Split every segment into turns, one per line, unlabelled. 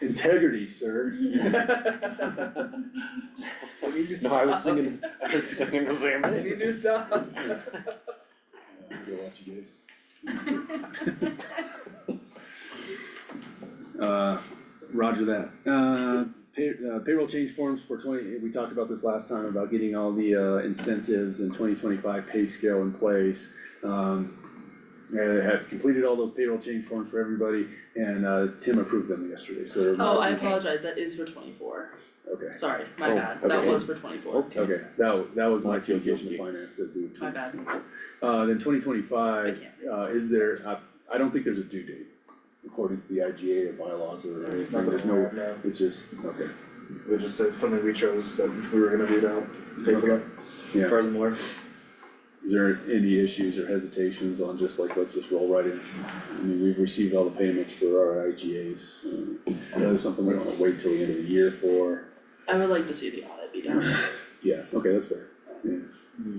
Integrity, sir.
We do
No, I was
stuff.
thinking, I was thinking the same
We
thing.
do stuff.
Yeah, I'll go watch you guys. Uh, Roger that. Uh, pay, uh, payroll change forms for twenty, we talked about this last time about getting all the, uh, incentives and twenty twenty-five pay scale in place. Um, I have completed all those payroll change forms for everybody and, uh, Tim approved them yesterday, so. they're-
Oh, I
Okay,
apologize, that is for twenty-four,
okay,
sorry, my
Oh,
bad, that
okay.
was for twenty-four,
Okay,
okay, that, wa- that was my
I feel
communication to
guilty.
finance that do.
my bad.
Uh, then twenty
I
twenty-five,
can't
uh, is there, I, I don't think there's a due date according to the IGA or bylaws or
No, it's
anything,
not
there's
gonna
no,
work, no.
it's just, okay.
We just said something we chose that we were gonna do to help pay for that.
Yeah.
Furthermore,
Is there any issues or hesitations on just like, let's just roll right in? I mean, we've received all the payments for our IGAs. um, Is this something we wanna wait till the end of the year for?
I would like to see the audit be done,
Yeah, okay, that's fair. Yeah,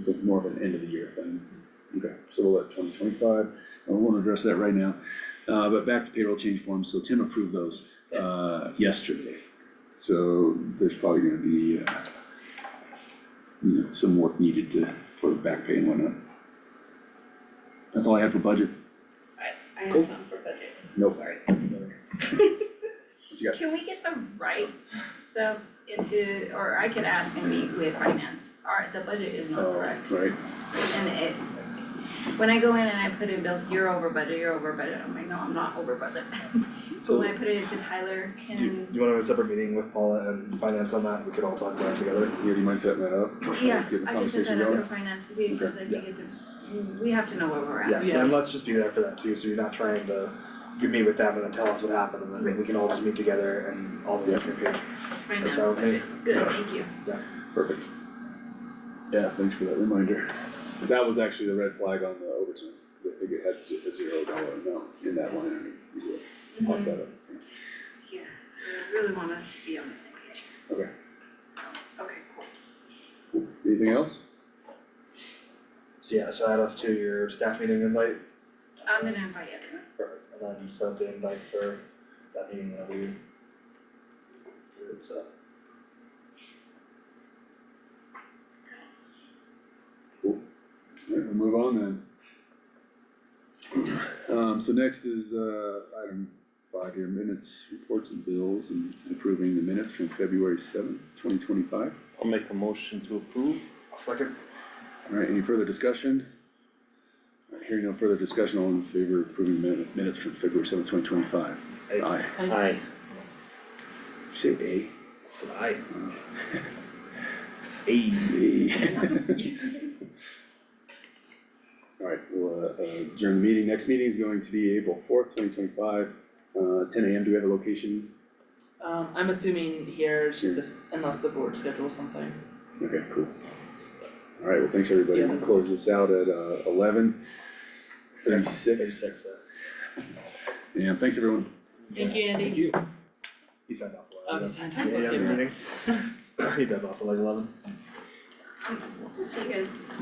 so more of an end of the year thing. Okay, so we'll let twenty twenty-five, I won't address that right now. Uh, but back to payroll change forms, so Tim approved those, uh, yesterday. So there's probably gonna be, uh, you know, some work needed to, for back pay and whatnot. That's all I have for budget.
I
Cool.
have some for budget.
No,
Sorry.
you got?
Can we get the right stuff into, or I can ask and meet with finance, our, the budget is not
Oh,
correct,
Right,
and it. When I go in and I put in bills, you're over budget, you're over budget, I'm like, no, I'm not over budget. But
so
when I put it into Tyler,
you,
can,
you wanna have a separate meeting with Paula and finance on that, we could all talk about it together.
yeah, do you mind setting that up?
yeah,
Get the
I can set
conversation
that up
going?
for finance, because I think it's a, we have to know where we're at.
Yeah,
Yeah.
and let's just be there for that too, so you're not trying to, you meet with them and then tell us what happened, and then we can all just meet together and all be on the same page.
Finance
sounds
budget, good, thank you.
Perfect. Yeah, thanks for that reminder. That was actually the red flag on the overtime, 'cause I think it had z- a zero dollar amount in that line item. You would pop that up.
Mm-hmm. Yeah, so I really want us to be on the same page,
Okay,
so, okay, cool.
anything else?
So yeah, so add us to your staff meeting invite,
I'm gonna invite everyone.
perfect, and then set the invite for that meeting that we. it's, uh,
Alright, we'll move on then. Um, so next is, uh, item five here, minutes, reports and bills, and approving the minutes from February seventh, twenty twenty-five.
I'll make a motion to approve.
I'll second.
Alright, any further discussion? Alright, Hearing no further discussion, all in favor of approving min- minutes from February seventh, twenty twenty-five?
Aye.
Aye.
Aye.
Did you Say aye?
It's an aye.
Alright, well, uh, during the meeting, next meeting is going to be April fourth, twenty twenty-five, uh, ten AM, do we have a location?
Um, I'm assuming here, it's just if, unless the board schedules something,
Okay, cool. Alright, well, thanks, everybody, we'll close this out at, uh, eleven thirty-six,
Thirty-six, uh,
and thanks, everyone.
thank you, Andy.
thank you. He signed off a
Oh,
lot.
he
of
signed
Yeah,
up,
yeah,
okay.
meetings. He does off at like eleven.
Um, Just so you guys